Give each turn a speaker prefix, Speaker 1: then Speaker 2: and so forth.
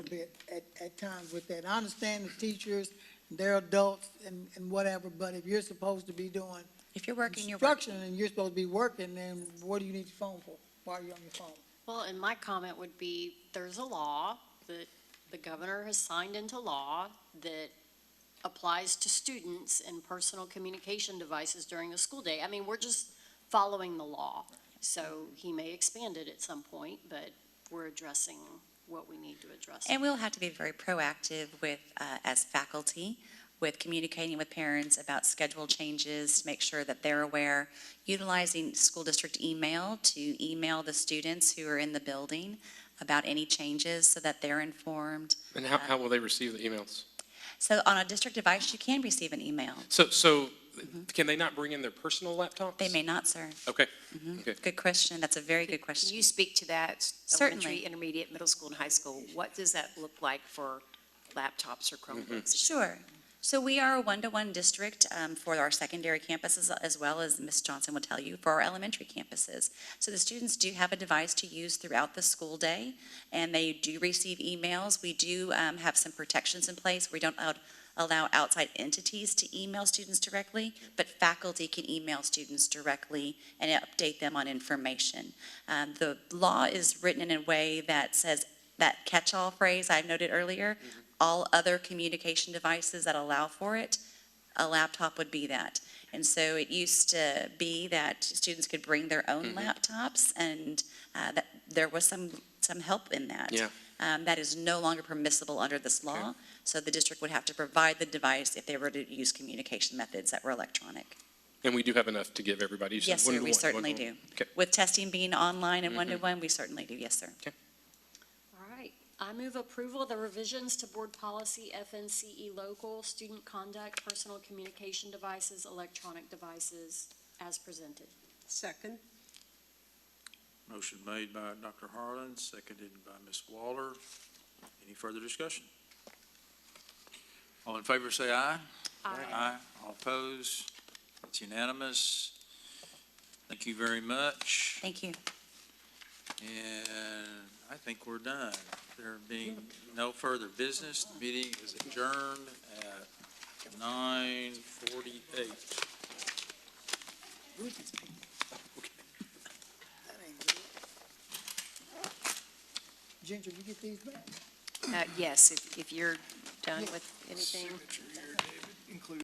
Speaker 1: bit at, at times with that. I understand the teachers, they're adults and, and whatever, but if you're supposed to be doing
Speaker 2: If you're working, you're working.
Speaker 1: instruction and you're supposed to be working, then what do you need your phone for? Why are you on your phone?
Speaker 3: Well, and my comment would be, there's a law that the governor has signed into law that applies to students and personal communication devices during the school day. I mean, we're just following the law. So he may expand it at some point, but we're addressing what we need to address.
Speaker 2: And we'll have to be very proactive with, uh, as faculty, with communicating with parents about schedule changes, to make sure that they're aware, utilizing school district email to email the students who are in the building about any changes so that they're informed.
Speaker 4: And how, how will they receive the emails?
Speaker 2: So on a district device, you can receive an email.
Speaker 4: So, so can they not bring in their personal laptops?
Speaker 2: They may not, sir.
Speaker 4: Okay,
Speaker 2: Mhm.
Speaker 4: Okay.
Speaker 2: Good question. That's a very good
Speaker 5: Can
Speaker 2: question.
Speaker 5: you speak to that?
Speaker 2: Certainly.
Speaker 5: Elementary, intermediate, middle school, and high school. What does that look like for laptops or Chromebooks?
Speaker 2: Sure. So we are a one-to-one district um, for our secondary campuses, as well as Ms. Johnson will tell you, for our elementary campuses. So the students do have a device to use throughout the school day, and they do receive emails. We do um, have some protections in place. We don't out- allow outside entities to email students directly, but faculty can email students directly and update them on information. Um, The law is written in a way that says, that catch-all phrase I noted earlier, all other communication devices that allow for it, a laptop would be that. And so it used to be that students could bring their
Speaker 4: Mm-hmm.
Speaker 2: own laptops, and uh, that there was some, some help in that.
Speaker 4: Yeah.
Speaker 2: Um, That is no longer permissible under this law, so the district would have to provide the device if they were to use communication methods that were electronic.
Speaker 4: and we do have enough to give everybody. You said
Speaker 2: Yes, sir, we
Speaker 4: one-to-one,
Speaker 2: certainly
Speaker 4: one-to-one.
Speaker 2: do.
Speaker 4: Okay. Mm-hmm.
Speaker 2: With testing being online and one-to-one, we certainly do, yes, sir.
Speaker 3: All right, I move approval of the revisions to board policy FNCE E local, student conduct, personal communication devices, electronic devices, as presented.
Speaker 6: Second.
Speaker 7: Motion made by Dr. Harlan, seconded by Ms. Waller. Any further discussion? All in favor, say aye. Aye. All opposed? It's unanimous. Thank you very much,
Speaker 2: Thank you.
Speaker 7: and I think we're done. There being no further business, the meeting is adjourned at nine forty-eight.
Speaker 1: We can speak. That ain't good. Ginger, you get these back?
Speaker 5: Uh, Yes, if, if you're done with anything.